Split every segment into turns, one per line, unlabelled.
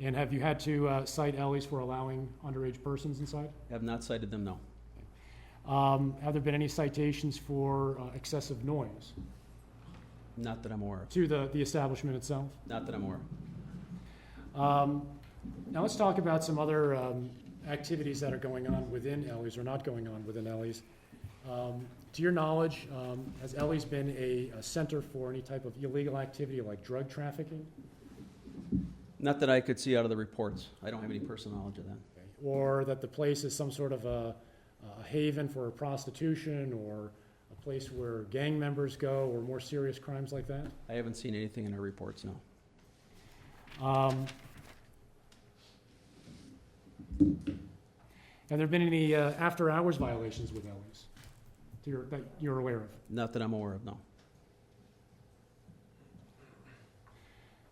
And have you had to uh, cite alleys for allowing underage persons inside?
Have not cited them, no.
Um, Have there been any citations for uh, excessive noise
Not that I'm aware of.
to the the establishment itself?
Not that I'm aware of.
Um, Now let's talk about some other um, activities that are going on within Ellie's or not going on within Ellie's. Um, To your knowledge, um, has Ellie's been a a center for any type of illegal activity like drug trafficking?
Not that I could see out of the reports. I don't have any personal knowledge of that.
Or that the place is some sort of a a haven for prostitution or a place where gang members go or more serious crimes like that?
I haven't seen anything in our reports, no.
Um, Have there been any uh, after-hours violations with Ellie's that you're- that you're aware of?
Not that I'm aware of, no.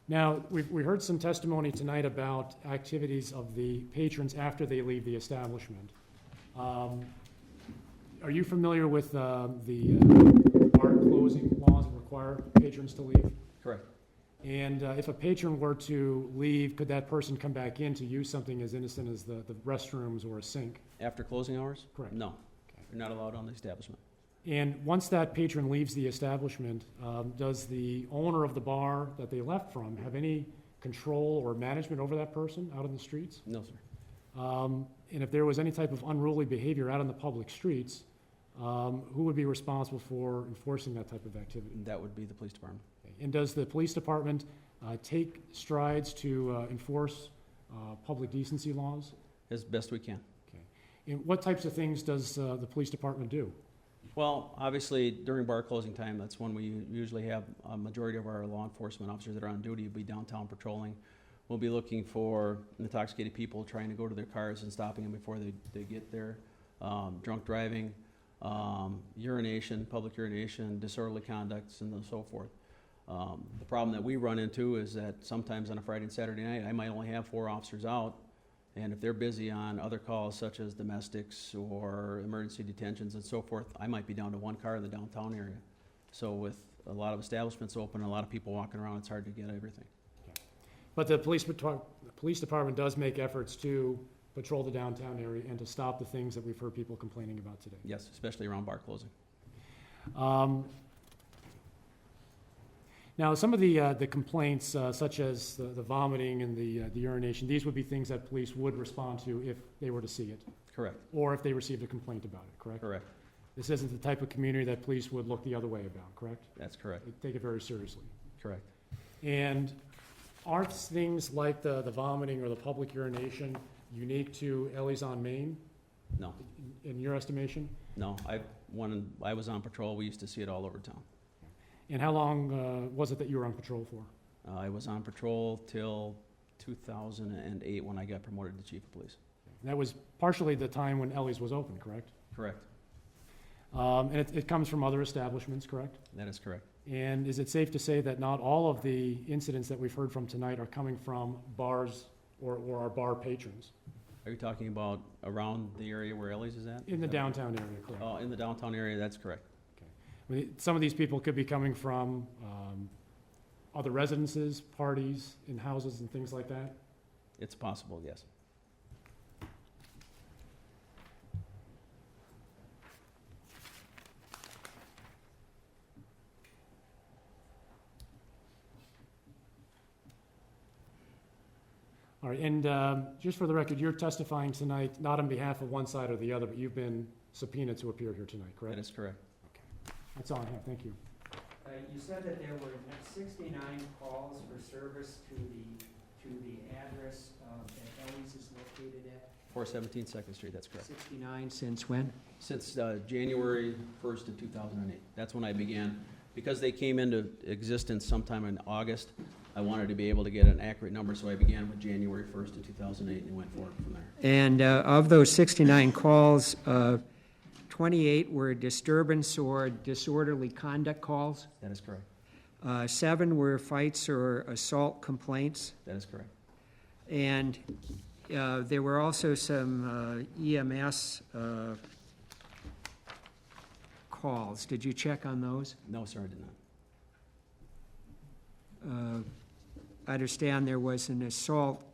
Now, we've- we heard some testimony tonight about activities of the patrons after they leave the establishment. Um, Are you familiar with uh, the uh, bar closing laws that require patrons to leave?
Correct.
And uh, if a patron were to leave, could that person come back in to use something as innocent as the the restrooms or a sink?
After closing hours?
Correct.
No. They're not allowed on the establishment.
And once that patron leaves the establishment, um, does the owner of the bar that they left from have any control or management over that person out in the streets?
No, sir.
Um, and if there was any type of unruly behavior out on the public streets, um, who would be responsible for enforcing that type of activity?
That would be the police department.
And does the police department uh, take strides to uh, enforce uh, public decency laws?
As best we can.
And what types of things does uh, the police department do?
Well, obviously, during bar closing time, that's when we usually have a majority of our law enforcement officers that are on duty will be downtown patrolling. We'll be looking for intoxicated people trying to go to their cars and stopping them before they, they get there. Um, drunk driving, um, urination, public urination, disorderly conducts, and so forth. Um, the problem that we run into is that sometimes on a Friday and Saturday night, I might only have four officers out. And if they're busy on other calls such as domestics or emergency detentions and so forth, I might be down to one car in the downtown area. So with a lot of establishments open, a lot of people walking around, it's hard to get everything.
But the police, patro- the police department does make efforts to patrol the downtown area and to stop the things that we've heard people complaining about today.
Yes, especially around bar closing.
Um, Now, some of the, uh, the complaints, uh, such as the the vomiting and the uh, the urination, these would be things that police would respond to if they were to see it,
Correct,
or if they received a complaint about it, correct?
correct.
This isn't the type of community that police would look the other way about, correct?
That's correct,
They take it very seriously.
correct.
And are things like the, the vomiting or the public urination unique to Ellie's on Main,
No,
in- in your estimation?
no, I, when I was on patrol, we used to see it all over town.
And how long uh, was it that you were on patrol for?
Uh, I was on patrol till two thousand and eight when I got promoted to chief of police.
That was partially the time when Ellie's was open, correct?
Correct,
Um, And it, it comes from other establishments, correct?
that is correct.
And is it safe to say that not all of the incidents that we've heard from tonight are coming from bars or, or our bar patrons?
Are you talking about around the area where Ellie's is at?
In the downtown area, correct?
Oh, in the downtown area, that's correct.
I mean, Some of these people could be coming from um, other residences, parties, in houses and things like that.
It's possible, yes.
All right, and um, just for the record, you're testifying tonight, not on behalf of one side or the other, but you've been subpoenaed to appear here tonight,
That
correct?
is correct.
That's all I have, thank you.
Uh, You said that there were sixty-nine calls for service to the, to the address uh, that Ellie's is located at.
Four seventeen Second Street, that's correct.
Sixty-nine since when?
Since uh, January first of two thousand and eight, that's when I began. Because they came into existence sometime in August, I wanted to be able to get an accurate number, so I began with January first of two thousand and eight and went forward from there.
And uh, of those sixty-nine calls, uh, twenty-eight were disturbance or disorderly conduct calls.
That is correct.
Uh, Seven were fights or assault complaints.
That is correct.
And uh, there were also some uh, EMS uh, calls. Did you check on those?
No, sir, I did not.
Uh, I understand there was an assault